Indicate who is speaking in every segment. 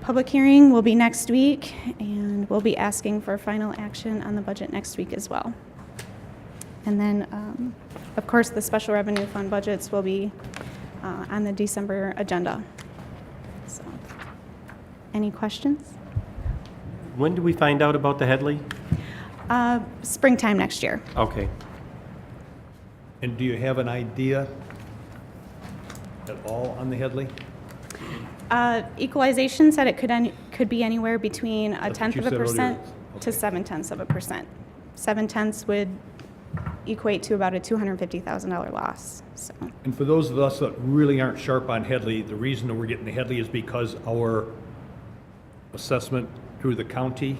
Speaker 1: Public hearing will be next week, and we'll be asking for final action on the budget next week as well. And then, um, of course, the special revenue fund budgets will be uh, on the December agenda. So, Any questions?
Speaker 2: When do we find out about the Headley?
Speaker 1: Uh, Springtime next year.
Speaker 2: Okay.
Speaker 3: And do you have an idea at all on the Headley?
Speaker 1: Uh, Equalization said it could, any- could be anywhere between a
Speaker 3: That's what
Speaker 1: tenth
Speaker 3: you
Speaker 1: of a
Speaker 3: said earlier.
Speaker 1: percent to
Speaker 3: Okay.
Speaker 1: seven tenths of a percent. Seven tenths would equate to about a $250,000 loss, so.
Speaker 3: And for those of us that really aren't sharp on Headley, the reason that we're getting the Headley is because our assessment through the county,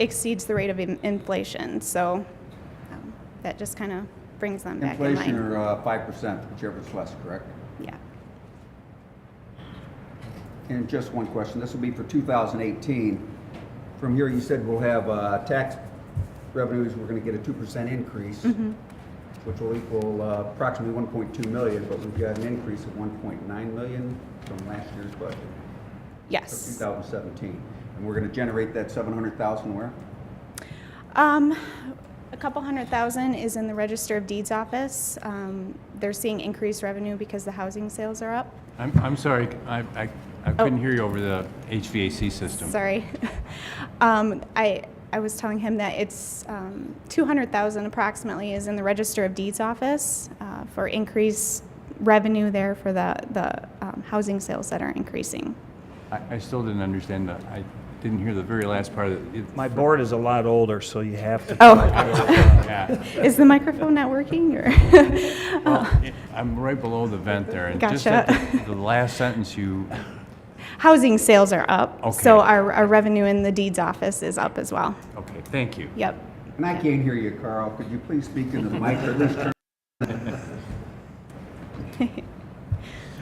Speaker 1: Exceeds the rate of in- inflation, so um, that just kind of brings them back in
Speaker 4: Inflation
Speaker 1: line.
Speaker 4: or uh, five percent, whichever is less, correct?
Speaker 1: Yeah.
Speaker 4: And just one question, this will be for 2018. From here, you said we'll have uh, tax revenues, we're going to get a 2% increase,
Speaker 1: Mm-hmm.
Speaker 4: which will equal uh, approximately 1.2 million, but we've got an increase of 1.9 million from last year's budget for
Speaker 1: Yes.
Speaker 4: 2017. And we're going to generate that 700,000 where?
Speaker 1: Um, a couple hundred thousand is in the Register of Deeds office. Um, they're seeing increased revenue because the housing sales are up.
Speaker 5: I'm, I'm sorry, I, I- I couldn't hear you over the HVAC system.
Speaker 1: Sorry. Um, I, I was telling him that it's, um, two hundred thousand approximately is in the Register of Deeds office, uh, for increased revenue there for the, the, um, housing sales that are increasing.
Speaker 5: I, I still didn't understand the, I didn't hear the very last part of it.
Speaker 6: My board is a lot older, so you have to.
Speaker 1: Oh,
Speaker 5: Yeah.
Speaker 1: is the microphone not working or?
Speaker 5: Well, I'm right below the vent there. and just at
Speaker 1: Gotcha.
Speaker 5: The the last sentence you,
Speaker 1: Housing sales are up, so
Speaker 5: Okay.
Speaker 1: our, our revenue in the deeds office is up as well.
Speaker 5: okay, thank you.
Speaker 1: Yep.
Speaker 4: And I can't hear you, Carl, could you please speak into the mic or at least turn?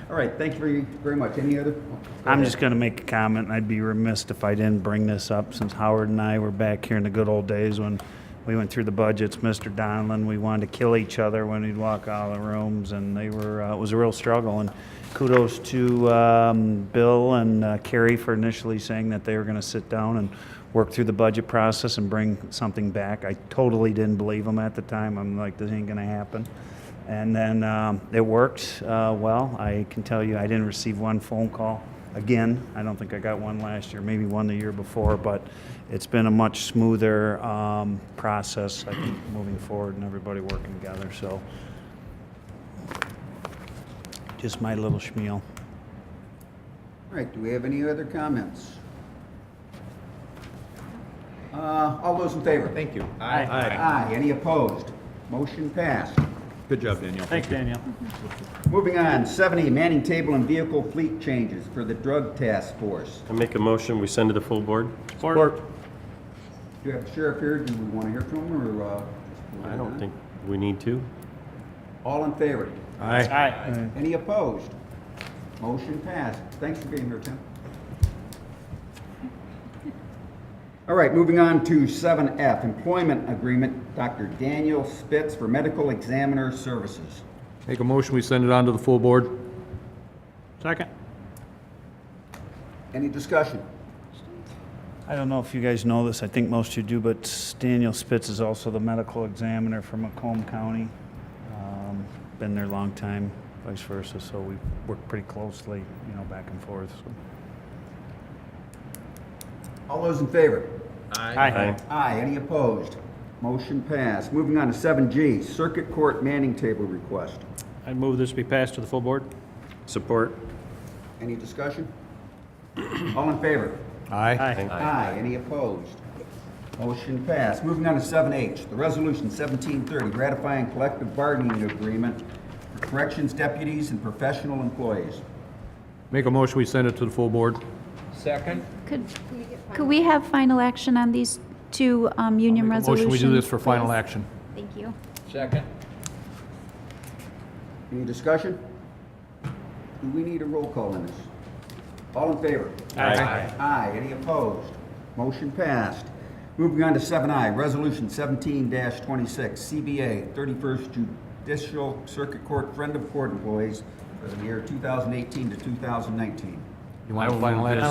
Speaker 4: All right, thank you very, very much. Any other?
Speaker 6: I'm just going to make a comment, and I'd be remiss if I didn't bring this up, since Howard and I were back here in the good old days when we went through the budgets, Mr. Donlin, we wanted to kill each other when we'd walk out of the rooms, and they were, uh, it was a real struggle, and kudos to um, Bill and uh, Carrie for initially saying that they were going to sit down and work through the budget process and bring something back. I totally didn't believe them at the time, I'm like, this ain't going to happen. And then um, it worked uh, well. I can tell you, I didn't receive one phone call again. I don't think I got one last year, maybe one the year before, but it's been a much smoother um, process, I think, moving forward and everybody working together. So just my little spiel.
Speaker 4: All right, do we have any other comments? Uh, All those in favor?
Speaker 2: Thank you.
Speaker 4: Aye. Any opposed? Motion passed.
Speaker 3: Good job, Danielle.
Speaker 2: Thanks, Daniel.
Speaker 4: Moving on, 70, Manning Table and Vehicle Fleet Changes for the Drug Task Force.
Speaker 2: I make a motion, we send to the full board?
Speaker 3: Support.
Speaker 4: Do you have the sheriff here? Do we want to hear from him, or? uh, just-
Speaker 2: I don't think we need to.
Speaker 4: All in favor?
Speaker 3: Aye.
Speaker 4: Any opposed? Motion passed. Thanks for being here, Tim. All right, moving on to 7F, Employment Agreement, Dr. Daniel Spitz for Medical Examiner Services.
Speaker 7: Make a motion, we send it on to the full board.
Speaker 3: Second.
Speaker 4: Any discussion?
Speaker 6: I don't know if you guys know this, I think most of you do, but Daniel Spitz is also the medical examiner for Macomb County. Um, Been there a long time, vice versa, so we work pretty closely, you know, back and forth. so.
Speaker 4: All those in favor?
Speaker 2: Aye.
Speaker 4: Aye, any opposed? Motion passed. Moving on to 7G, Circuit Court Manning Table Request.
Speaker 8: I move this be passed to the full board.
Speaker 2: Support?
Speaker 4: Any discussion? All in favor?
Speaker 7: Aye.
Speaker 4: Aye, any opposed? Motion passed. Moving on to 7H, the Resolution 1730, ratifying collective bargaining agreement for corrections deputies and professional employees.
Speaker 7: Make a motion, we send it to the full board.
Speaker 9: Could, could we have final action on these two um, union
Speaker 7: Make a
Speaker 9: resolutions?
Speaker 7: Motion, we do this for final
Speaker 9: please?
Speaker 7: action.
Speaker 9: Thank you.
Speaker 4: Any discussion? Do we need a roll call on this? All in favor? Aye. Aye, any opposed? Motion passed. Moving on to seven I, Resolution seventeen twenty-six, CBA, thirty-first Judicial Circuit Court Friend of Court Employees for the year two thousand eighteen to two thousand nineteen.
Speaker 5: You want a final action?